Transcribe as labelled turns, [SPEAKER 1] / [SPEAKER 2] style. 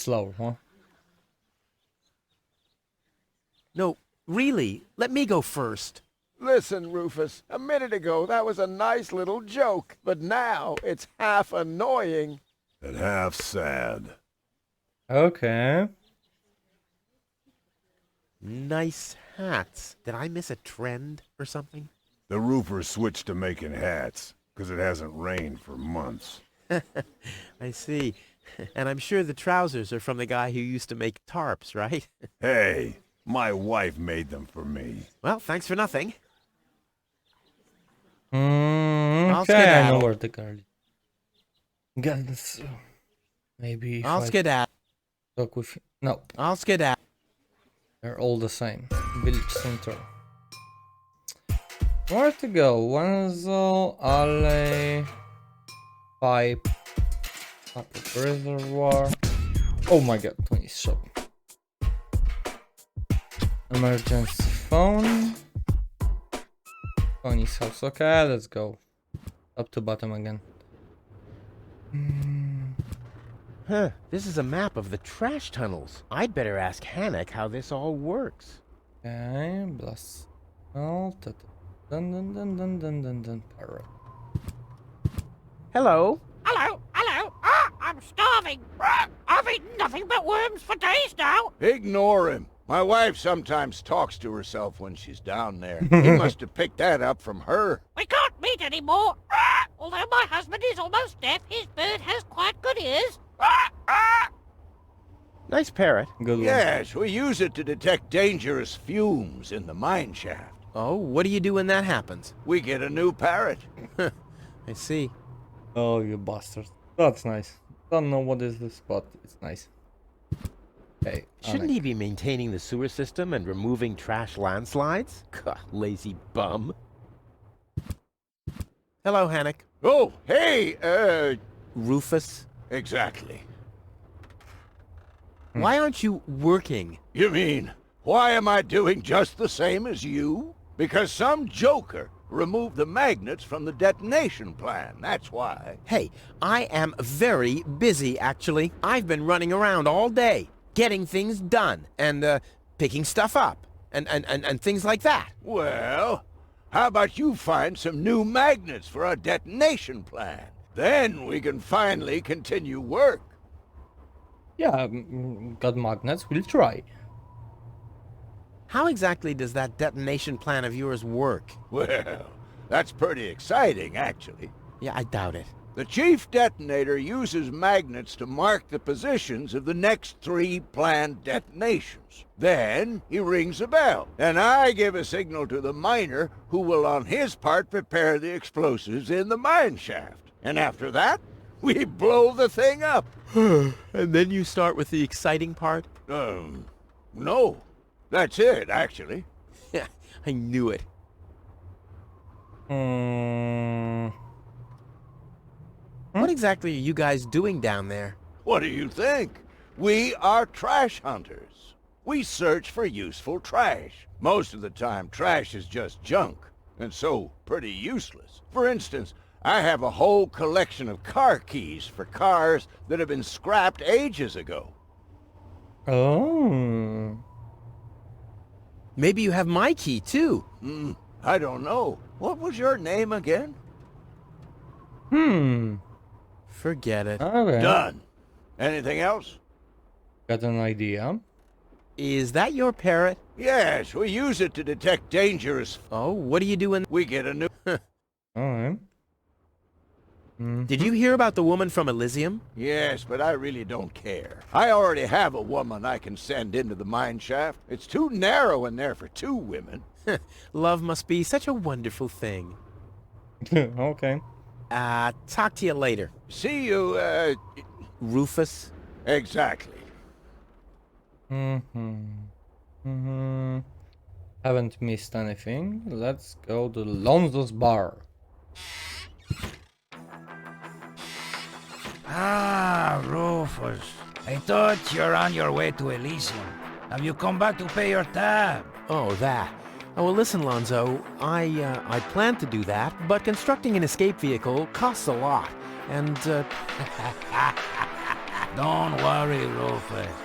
[SPEAKER 1] Slow, huh?
[SPEAKER 2] No, really, let me go first.
[SPEAKER 3] Listen, Rufus, a minute ago that was a nice little joke, but now it's half annoying.
[SPEAKER 4] and half sad.
[SPEAKER 1] Okay.
[SPEAKER 2] Nice hats. Did I miss a trend or something?
[SPEAKER 4] The roofers switched to making hats, 'cause it hasn't rained for months.
[SPEAKER 2] I see. And I'm sure the trousers are from the guy who used to make tarps, right?
[SPEAKER 4] Hey, my wife made them for me.
[SPEAKER 2] Well, thanks for nothing.
[SPEAKER 1] Mm,
[SPEAKER 2] I'll
[SPEAKER 1] okay, I know
[SPEAKER 2] skedaddle.
[SPEAKER 1] where the car is. Guns. Maybe if
[SPEAKER 2] I'll
[SPEAKER 1] I
[SPEAKER 2] skedaddle.
[SPEAKER 1] talk with. No,
[SPEAKER 2] I'll skedaddle.
[SPEAKER 1] they're all the same. Village center. Where to go? Wenzel Alley. Pipe. Upper Reservoir. Oh my god, 20 shop. Emergency phone. Tony's house. Okay, let's go. Up to bottom again.
[SPEAKER 2] Huh, this is a map of the trash tunnels. I'd better ask Hannock how this all works.
[SPEAKER 1] Okay, blast. Oh, ta- ta- dun dun dun dun dun dun dun. Pyro.
[SPEAKER 2] Hello.
[SPEAKER 5] Hello, hello. Ah, I'm starving. Ah, I've eaten nothing but worms for days now.
[SPEAKER 3] Ignore him. My wife sometimes talks to herself when she's down there. he must have picked that up from her.
[SPEAKER 5] We can't meet anymore. Ah, although my husband is almost deaf, his bird has quite good ears. Ah, ah.
[SPEAKER 2] Nice parrot.
[SPEAKER 1] Good one.
[SPEAKER 3] Yes, we use it to detect dangerous fumes in the mine shaft.
[SPEAKER 2] Oh, what do you do when that happens?
[SPEAKER 3] We get a new parrot.
[SPEAKER 2] I see.
[SPEAKER 1] Oh, you bastard. That's nice. Don't know what is this, but it's nice. Okay.
[SPEAKER 2] Shouldn't he be maintaining the sewer system and removing trash landslides? Gah, lazy bum. Hello, Hannock.
[SPEAKER 3] Oh, hey, uh,
[SPEAKER 2] Rufus.
[SPEAKER 3] exactly.
[SPEAKER 2] Why aren't you working?
[SPEAKER 3] You mean, why am I doing just the same as you? Because some joker removed the magnets from the detonation plan, that's why.
[SPEAKER 2] Hey, I am very busy, actually. I've been running around all day, getting things done, and, uh, picking stuff up, and, and, and, and things like that.
[SPEAKER 3] Well, how about you find some new magnets for our detonation plan? Then we can finally continue work.
[SPEAKER 1] Yeah, mm, got magnets. We'll try.
[SPEAKER 2] How exactly does that detonation plan of yours work?
[SPEAKER 3] Well, that's pretty exciting, actually.
[SPEAKER 2] Yeah, I doubt it.
[SPEAKER 3] The chief detonator uses magnets to mark the positions of the next three planned detonations. Then he rings a bell, and I give a signal to the miner who will on his part prepare the explosives in the mine shaft. And after that, we blow the thing up.
[SPEAKER 2] And then you start with the exciting part?
[SPEAKER 3] Um, no. That's it, actually.
[SPEAKER 2] Yeah, I knew it.
[SPEAKER 1] Mm,
[SPEAKER 2] What exactly are you guys doing down there?
[SPEAKER 3] What do you think? We are trash hunters. We search for useful trash. Most of the time, trash is just junk, and so pretty useless. For instance, I have a whole collection of car keys for cars that have been scrapped ages ago.
[SPEAKER 1] Oh.
[SPEAKER 2] Maybe you have my key, too.
[SPEAKER 3] Hmm, I don't know. What was your name again?
[SPEAKER 1] Hmm.
[SPEAKER 2] Forget it. Is
[SPEAKER 1] Okay.
[SPEAKER 3] Done. Anything else?
[SPEAKER 1] Got an idea.
[SPEAKER 2] that your parrot?
[SPEAKER 3] Yes, we use it to detect dangerous.
[SPEAKER 2] Oh, what do you do in...
[SPEAKER 3] We get a new.
[SPEAKER 1] Alright. Mm.
[SPEAKER 2] Did you hear about the woman from Elysium?
[SPEAKER 3] Yes, but I really don't care. I already have a woman I can send into the mine shaft. It's too narrow in there for two women.
[SPEAKER 2] Love must be such a wonderful thing.
[SPEAKER 1] okay.
[SPEAKER 2] Uh, talk to you later.
[SPEAKER 3] See you, uh,
[SPEAKER 2] Rufus?
[SPEAKER 3] exactly.
[SPEAKER 1] Mm-hmm. Mm-hmm. Haven't missed anything. Let's go to Lonzo's bar.
[SPEAKER 6] Ah, Rufus. I thought you're on your way to Elysium. Have you come back to pay your tab?
[SPEAKER 2] Oh, that. Oh, well, listen, Lonzo. I, uh, I planned to do that, but constructing an escape vehicle costs a lot. And, uh,
[SPEAKER 6] Don't worry, Rufus.